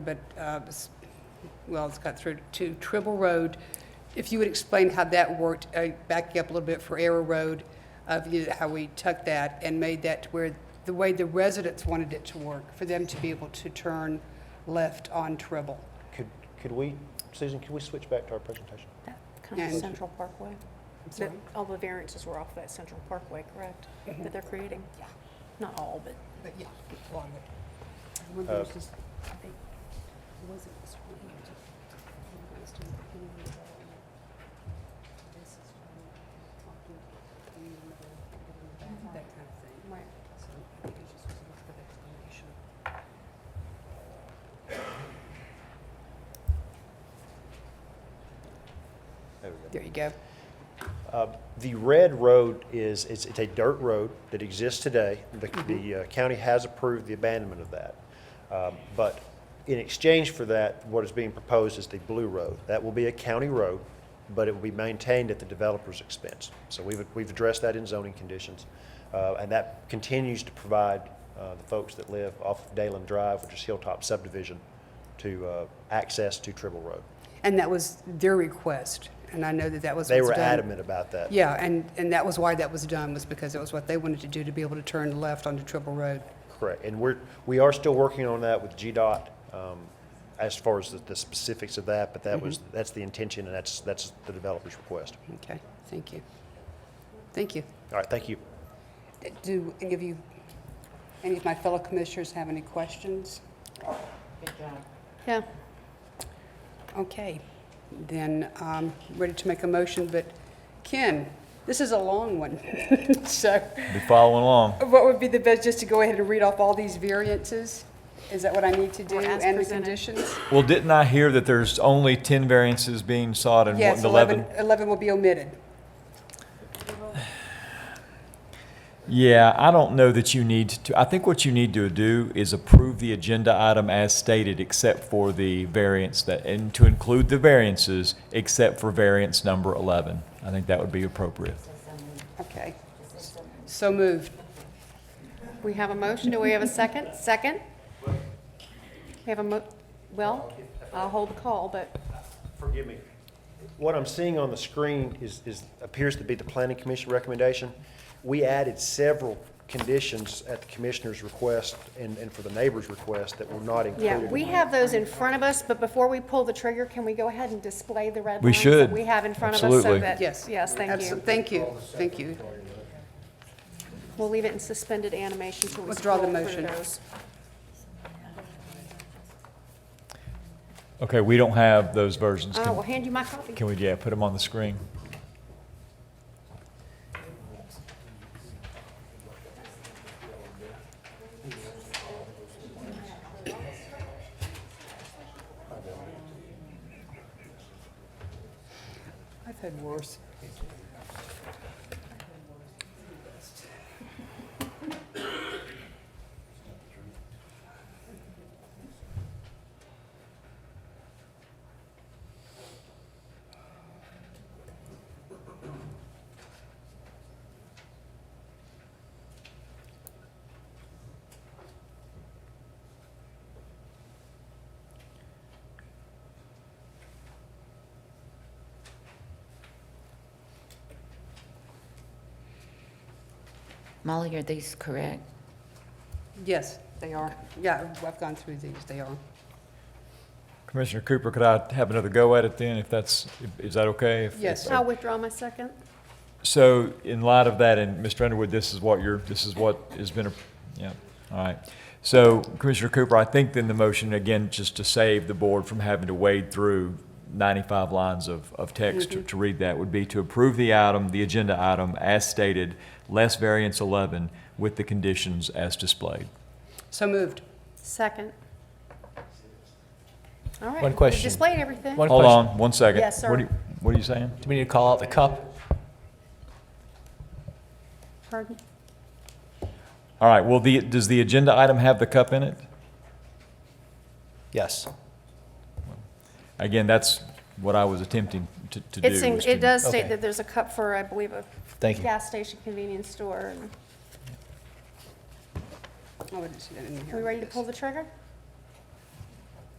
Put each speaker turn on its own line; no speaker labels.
but, uh, s- well, it's got through to Tribble Road. If you would explain how that worked, uh, backing up a little bit for Arrow Road, of you- how we took that and made that to where, the way the residents wanted it to work, for them to be able to turn left on Tribble.
Could, could we, Susan, could we switch back to our presentation?
That kind of
Yeah.
Central Parkway.
I'm
That-
sorry. Mm-hmm.
All the variances were off that Central Parkway, correct? That they're creating?
Yeah.
Not all, but
But yeah, a lot of it. I wonder
Uh,
if this- I think- was it this one? It was- it was doing the community development. This is from talking to community development, Mm-hmm. That kind of thing. Right. So I think it's just a little bit of explanation.
There we go.
There you go.
Uh, The red road is, it's, it's a dirt road that exists today. The, the uh, county has approved the abandonment of that. Um, But in exchange for that, what is being proposed is the blue road. That will be a county road, but it will be maintained at the developer's expense. So we've, we've addressed that in zoning conditions. Uh, and that continues to provide, uh, the folks that live off of Dalen Drive, which is Hilltop subdivision, to, uh, access to Tribble Road.
And that was their request, and I know that that was
They
what's
were
done.
adamant about that.
Yeah, and, and that was why that was done, was because it was what they wanted to do, to be able to turn left onto Triple Road.
Correct, and we're, we are still working on that with GDOT, um, as far as the, the specifics of that, but that was,
Mm-hmm.
that's the intention, and that's, that's the developer's request.
Okay, thank you. Thank you.
All right, thank you.
Do any of you, any of my fellow commissioners have any questions?
yeah.
Okay, then I'm ready to make a motion, but Ken, this is a long one. So
Be following along.
what would be the best, just to go ahead and read off all these variances? Is that what I need to do?
Or as
And the
presented.
conditions?
Well, didn't I hear that there's only 10 variances being sought and
Yes,
what-
11,
11?
11 will be omitted.
Yeah, I don't know that you need to, I think what you need to do is approve the agenda item as stated, except for the variance that, and to include the variances, except for variance number 11. I think that would be appropriate.
Okay. So moved.
We have a motion. Do we have a second? Second? We have a mo, well, I'll hold the call, but
Forgive me. What I'm seeing on the screen is, is, appears to be the planning commission recommendation. We added several conditions at the commissioner's request and, and for the neighbor's request that were not included.
yeah,
in
we
the-
have those in front of us, but before we pull the trigger, can we go ahead and display the red
We
lines that
should.
we have in front of us so
Absolutely.
that?
Yes.
Yes, thank
Abso-
you.
Thank you, thank you.
We'll leave it in suspended animation till we
Withdraw
scroll
the
through
motion.
those.
Okay, we don't have those
Uh,
versions.
I will
Can
Uh, hand you my copy.
can we, yeah, put them on the screen?
I've had worse.
Molly, are these correct?
Yes,
They are.
yeah, I've gone through these, they are.
Commissioner Cooper, could I have another go at it then, if that's, is that okay? If- if-
Yes.
I'll withdraw my second.
So in light of that, and Mr. Underwood, this is what you're, this is what has been, a- yeah, all right. So Commissioner Cooper, I think then the motion, again, just to save the board from having to wade through 95 lines of, of text
Mm-hmm.
to- to read that, would be to approve the item, the agenda item, as stated, less variance 11, with the conditions as displayed.
So moved.
Second. All right.
One question.
We've displayed everything.
One
Hold
question.
on, one second.
Yes, sir.
What are you- What are you saying?
Do we need to call out the cup?
Pardon?
All right, well, the, does the agenda item have the cup in it?
Yes.
Again, that's what I was attempting to to do.
It's, in-
was to-
it does state
Okay.
that there's a cup for, I believe, a
Thank you.
gas station convenience store. and-
Oh, I wouldn't see that in here.
Are we ready to pull the trigger?